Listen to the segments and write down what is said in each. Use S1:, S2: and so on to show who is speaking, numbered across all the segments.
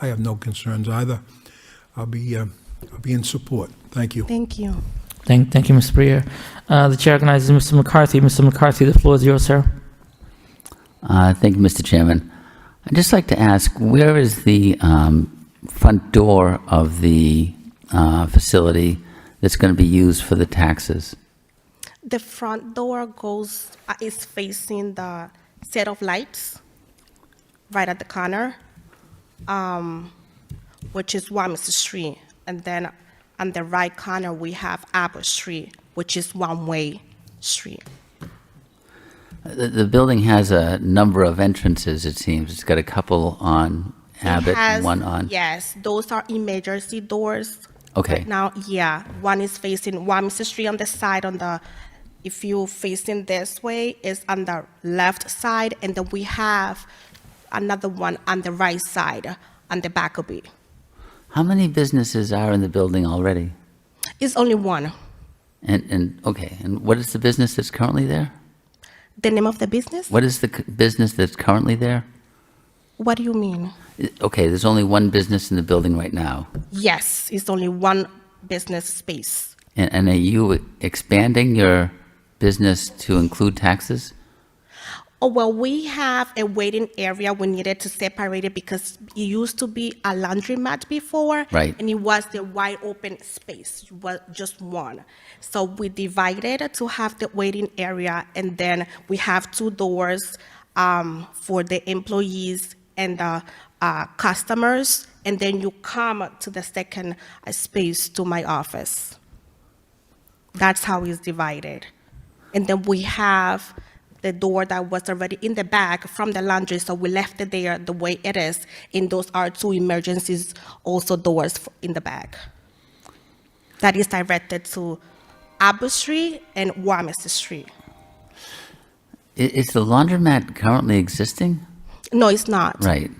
S1: I have no concerns either. I'll be, uh, I'll be in support. Thank you.
S2: Thank you.
S3: Thank, thank you, Ms. Breer. Uh, The chair recognizes Mr. McCarthy. Mr. McCarthy, the floor is yours, sir.
S4: Uh, Thank you, Mr. Chairman. I'd just like to ask, where is the um, front door of the uh, facility that's going to be used for the taxes?
S2: The front door goes, uh, is facing the set of lights right at the corner, um, which is Wamis Street. And then on the right corner, we have Abbott Street, which is one-way street.
S4: The the building has a number of entrances, it seems. It's got a couple on
S2: It
S4: Abbott and
S2: has-
S4: one on...
S2: Yes, those are emergency doors.
S4: Okay.
S2: Right now, yeah, one is facing Wamis Street on the side on the, if you facing this way, is on the left side, and then we have another one on the right side, on the back of it.
S4: How many businesses are in the building already?
S2: It's only one.
S4: And, and, okay, and what is the business that's currently there?
S2: The name of the business?
S4: What is the c- business that's currently there?
S2: What do you mean?
S4: I- Okay, there's only one business in the building right now.
S2: Yes, it's only one business space.
S4: And, and are you expanding your business to include taxes?
S2: Oh, well, we have a waiting area. We needed to separate it because it used to be a laundromat before.
S4: Right.
S2: And it was the wide open space, was just one. So we divided to have the waiting area, and then we have two doors um, for the employees and the uh, customers. And then you come to the second uh, space to my office. That's how it's divided. And then we have the door that was already in the back from the laundry, so we left it there the way it is. And those are two emergencies, also doors f- in the back. That is directed to Abu Street and Wamis Street.
S4: I- Is the laundromat currently existing?
S2: No, it's not.
S4: Right.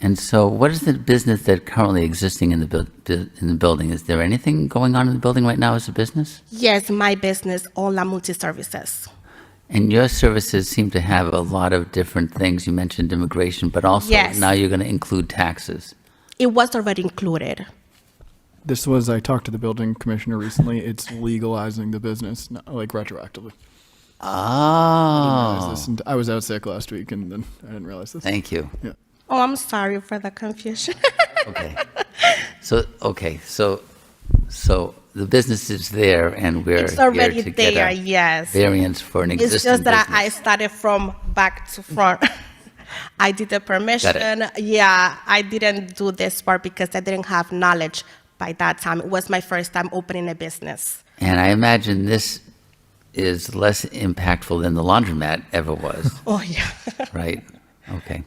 S4: And so what is the business that currently existing in the, buil- bu- in the building? Is there anything going on in the building right now as a business?
S2: Yes, my business, Ola Multi Services.
S4: And your services seem to have a lot of different things. You mentioned immigration, but also
S2: Yes.
S4: now you're going to include taxes.
S2: It was already included.
S5: This was, I talked to the building commissioner recently. It's legalizing the business, not, like retroactively. I, realized
S4: Oh,
S5: this, and I was out sick last week and then I didn't realize this.
S4: thank you.
S5: Yeah.
S2: Oh, I'm sorry for the confusion.
S4: Okay. So, okay, so, so the business is there and we're
S2: It's
S4: here
S2: already
S4: to get
S2: there,
S4: a
S2: yes.
S4: variance for an existing
S2: It's just that I, I
S4: business.
S2: started from back to front. I did the permission. Yeah, I didn't do this part because I didn't have knowledge by that time. It was my first time opening a business.
S4: And I imagine this is less impactful than the laundromat ever was,
S2: Oh, yeah.
S4: right? Okay.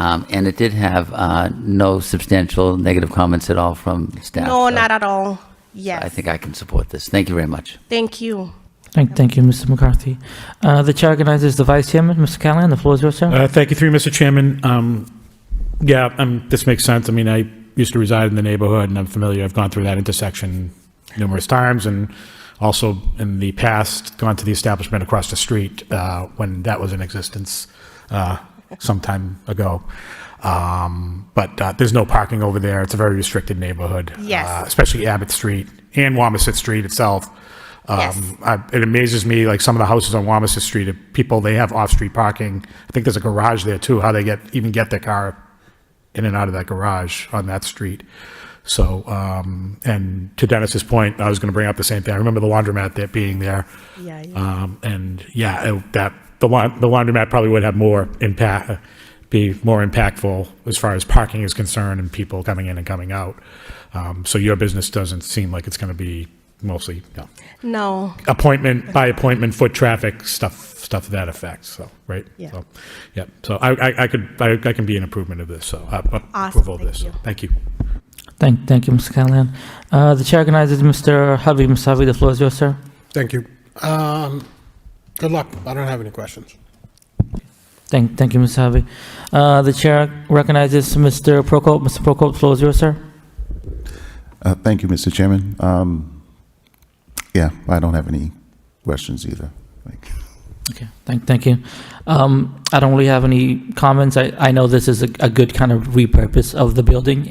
S4: Um, And it did have uh, no substantial negative comments at all from staff.
S2: No,
S4: so
S2: not at all.
S4: I
S2: Yes.
S4: think I can support this. Thank you very much.
S2: Thank you.
S3: Thank, thank you, Mr. McCarthy. Uh, The chair recognizes the vice chairman, Mr. Callahan. The floor is yours, sir.
S6: Uh, Thank you, through you, Mr. Chairman. Um, Yeah, um, this makes sense. I mean, I used to reside in the neighborhood, and I'm familiar. I've gone through that intersection numerous times, and also in the past, gone to the establishment across the street uh, when that was in existence uh, some time ago. Um, But uh, there's no parking over there. It's a very restricted neighborhood.
S2: Yes.
S6: uh, Especially Abbott Street and Wamasett Street itself.
S2: Yes.
S6: Um, I- It amazes me, like some of the houses on Wamasett Street, people, they have off-street parking. I think there's a garage there too, how they get, even get their car in and out of that garage on that street. So, um, and to Dennis's point, I was going to bring up the same thing. I remember the laundromat that being there.
S2: Yeah,
S4: Uh,
S2: yeah.
S6: Um, and yeah, it- that, the laun- the laundromat probably would have more impact, be more impactful as far as parking is concerned and people coming in and coming out. Um, so your business doesn't seem like it's going to be mostly, you know,
S2: No.
S6: appointment by appointment foot traffic stuff stuff to that effect so right
S2: Yeah.
S6: so, yeah so I, I i could I, I can be an improvement of this so uh, uh,
S2: Awesome,
S6: approval of
S2: thank
S6: this
S2: you.
S6: thank you
S3: Thank, thank you, Mr. Callahan. Uh, The chair recognizes Mr. Hovey. Mr. Hovey, the floor is yours, sir.
S7: Thank you. Um, Good luck. I don't have any questions.
S3: Thank, thank you, Mr. Hovey. Uh, The chair recognizes Mr. Prokop. Mr. Prokop, the floor is yours, sir.
S8: Uh, Thank you, Mr. Chairman. Um, Yeah, I don't have any questions either. Thank you.
S3: Okay, thank, thank you. Um, I don't really have any comments. I, I know this is a, a good kind of repurpose of the building